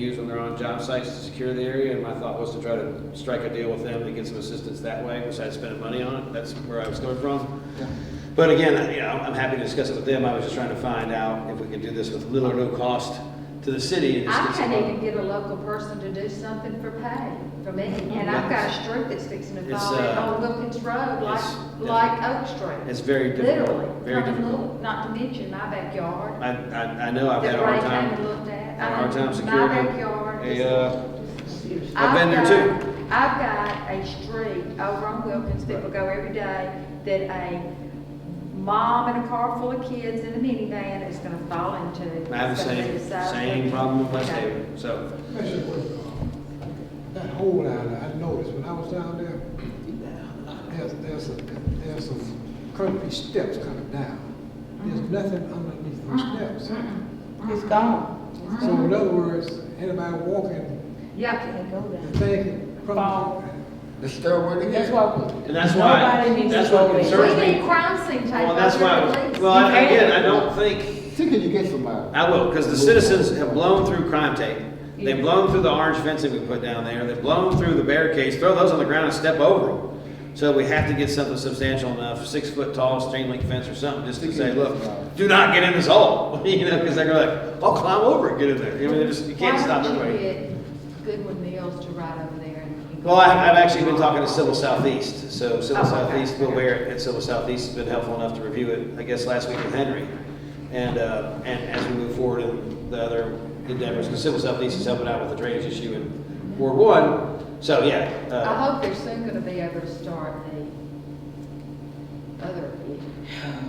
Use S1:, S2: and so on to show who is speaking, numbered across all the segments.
S1: use when they're on job sites to secure the area, and my thought was to try to strike a deal with them to get some assistance that way, besides spending money on it, that's where I was coming from. But again, I- you know, I'm happy to discuss it with them, I was just trying to find out if we could do this with little or no cost to the city. and just
S2: I
S1: get some-
S2: can't even get a local person to do something for pay for me, and I've got a street that's fixing to
S1: Oh, It's,
S2: fall in
S1: uh,
S2: on Wilkins Road,
S1: it's-
S2: like, like Oak Street.
S1: It's very difficult,
S2: Literally,
S1: very
S2: come and
S1: difficult.
S2: look, not to mention my backyard.
S1: I, I, I know I've had
S2: that
S1: a hard
S2: Ray came and
S1: time,
S2: looked
S1: had
S2: at.
S1: a
S2: I
S1: hard
S2: mean,
S1: time securing
S2: My
S1: a-
S2: backyard.
S1: a,
S2: is-
S1: uh, I've
S2: I've
S1: been there
S2: got-
S1: too.
S2: I've got a street over on Wilkins, people go every day, that a mom and a car full of kids in a minivan is gonna fall into.
S1: I have the
S2: It's gonna be
S1: same,
S2: the size of-
S1: same problem with West
S2: Okay.
S1: Haven, so.
S3: Especially with, uh, That hole down there, I noticed when I was down there, there's, there's, a- there's some concrete steps coming down. There's
S4: Mm-hmm.
S3: nothing underneath those steps.
S5: It's gone.
S4: Mm-hmm.
S3: So in other words, anybody walking,
S2: Yeah,
S5: They go
S3: the
S5: down.
S3: thing can
S5: Fall.
S3: crumble.
S6: The stairway to
S5: That's
S6: get.
S5: why. we-
S1: And that's why-
S5: Nobody needs
S1: that's
S5: to
S1: what
S5: go
S1: concerns
S5: there.
S2: we
S1: Certainly.
S2: need crime scene type.
S1: Well, that's why, I was- well, I- again, I don't think,
S6: See, can you get somebody?
S1: I will, because the citizens have blown through crime tape. They've blown through the orange fencing we put down there. They've blown through the barricades. Throw those on the ground and step over them. So we have to get something substantial enough, six foot tall chain link fence or something, just to say, look, do not get in this hole. You know, because they're gonna like, I'll climb over it, get in there. I mean, they're just, you can't stop
S2: Why don't
S1: anybody.
S2: you get Goodwin Mills to ride over there and?
S1: Well, I, I've actually been talking to Civil Southeast, so
S2: Oh,
S1: Civil
S2: okay.
S1: Southeast, Bill Barrett at Civil Southeast has been helpful enough to review it, I guess, last week with Henry. And, uh, and as we move forward in the other endeavors, because Civil Southeast is helping out with the drainage issue in Ward One, so yeah.
S2: I
S1: uh,
S2: hope they're soon gonna be able to start the other.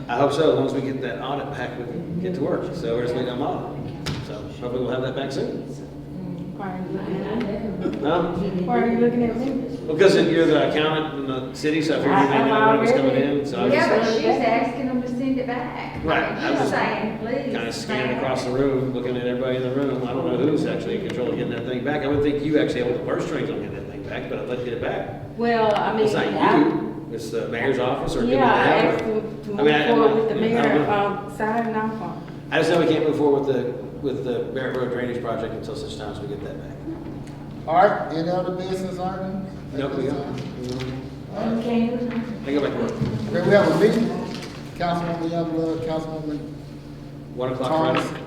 S1: I hope so, as long as we get that audit back, we can get to work, so we're just waiting on that. So hopefully we'll have that back soon.
S5: Why are you looking at me?
S1: Huh?
S5: Why are you looking at me?
S1: Because you're the accountant in the city, so I figured you may know when it was coming in, so I
S2: Yeah,
S1: just
S2: but she's asking them to send it back.
S1: Right,
S2: I mean,
S1: I
S2: She's
S1: was
S2: saying, please.
S1: kind of scanning across the room, looking at everybody in the room. I don't know who's actually in control of getting that thing back. I would think you actually hold the purse strings on getting that thing back, but I'd let you get it back.
S5: Well, I mean.
S1: It's not
S5: I-
S1: you, it's the mayor's office or.
S5: Yeah, I
S1: whoever.
S5: asked them to
S1: I mean,
S5: move
S1: I-
S5: forward with the
S1: I don't
S5: mayor,
S1: know.
S5: um, signing off on. it.
S1: I just know we can't move forward with the, with the Barrett Road drainage project until such time as we get that back.
S6: Art, any other business items?
S1: Nope, we don't.
S5: Okay.
S1: I go back to work.
S6: Okay, we have a meeting, Councilwoman Youngblood, Councilwoman
S1: One o'clock
S6: Thomas,
S1: Friday.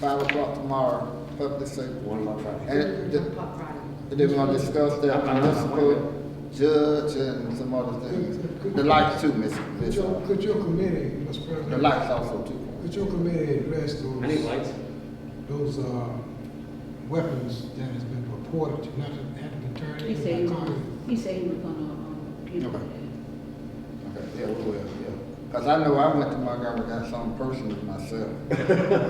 S6: five o'clock tomorrow, public safety.
S1: One o'clock Friday.
S6: And th-
S2: Pop right.
S6: and then we're gonna discuss the
S1: I'm- I'm- I'm-
S6: municipal judge and some other things. The lights too, Miss,
S3: Could
S6: Miss,
S3: your,
S6: the
S3: could your committee, Mr. President,
S6: lights also too.
S3: could your committee address
S1: I need
S3: those,
S1: lights.
S3: those, uh, weapons that has been reported to not have been turned
S4: He
S3: into
S4: said he
S3: by
S4: was,
S3: Congress?
S4: he said he was gonna, um, get
S6: Okay.
S4: it.
S6: Okay, yeah, we will, yeah. Cause I know I went to Montgomery, got something personal myself.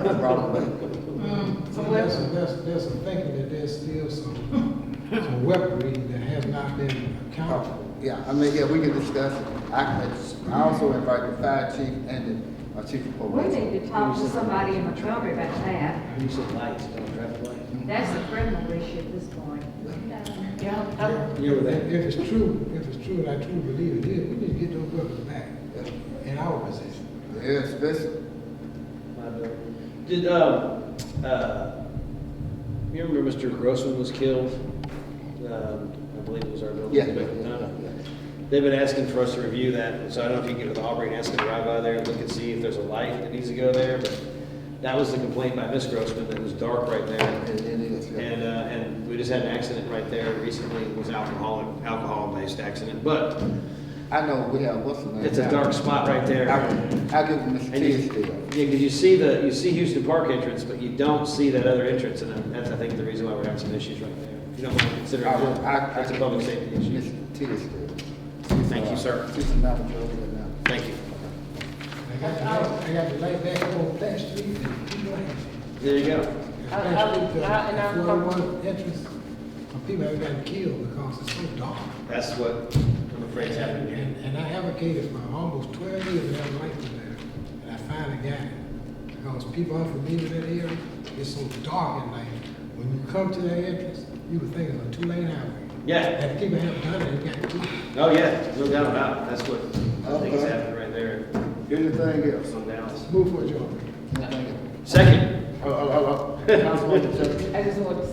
S6: I brought it back.
S3: See, There's, there's, there's some thinking that there's still some, some weaponry that has not been accounted for.
S6: Oh, Yeah, I mean, yeah, we can discuss it. I, it's- I also invite the fire chief and the uh, chief of
S2: We
S6: police.
S2: need to talk to somebody in Montgomery about that.
S1: You said lights, don't traffic lights.
S2: That's a criminal issue at this point.
S5: Yeah, I-
S1: You were there.
S3: If it's true, if it's true, and I truly believe it is, we need to get those weapons back
S6: Yeah,
S3: in our possession.
S6: Yeah, especially,
S1: Did, um, uh, you remember Mr. Grossman was killed? Um, I believe it was our building.
S6: yeah, yeah,
S1: inspector, huh?
S6: yeah.
S1: They've been asking for us to review that, so I don't know if you can get with Aubrey and ask them to drive by there and look and see if there's a light that needs to go there, but that was the complaint by Ms. Grossman, that it was dark right there.
S6: It it is, yeah.
S1: And, uh, and we just had an accident right there recently, it was alcoholic, alcohol-based accident, but
S6: I know, we have, what's the name?
S1: it's a dark spot right there.
S6: I, I give him Mr.
S1: And you,
S6: Tisdale.
S1: yeah, 'cause you see the, you see Houston Park entrance, but you don't see that other entrance, and then that's, I think, the reason why we're having some issues right there. If you don't mind considering
S6: I will- I-
S1: that, that's a public safety issue.
S6: Mr. Tisdale.
S1: Thank you, sir.
S6: He's not a judge now.
S1: Thank you.
S3: I got the, light- I got the light back on Flat Street and people have it.
S1: There you go.
S5: I- I was- I- and I'm-
S3: That's where uh, one entrance, people have gotten killed because it's so dark.
S1: That's what I'm afraid is
S3: And,
S1: happening here.
S3: and I advocated for almost twelve years without light in there, and I finally got it. Because people aren't familiar with that area, it's so dark at night. When you come to that entrance, you would think it's a two-lane highway.
S1: Yeah,
S3: And people have done it, they got killed.
S1: oh yeah, no doubt about it, that's what I think is happening right there.
S6: Anything else?
S1: Some downs.
S3: Move for a job.
S6: Anything else?
S1: Second.
S6: Oh, oh, oh, oh. Councilwoman Jackson.
S5: I just wanted to say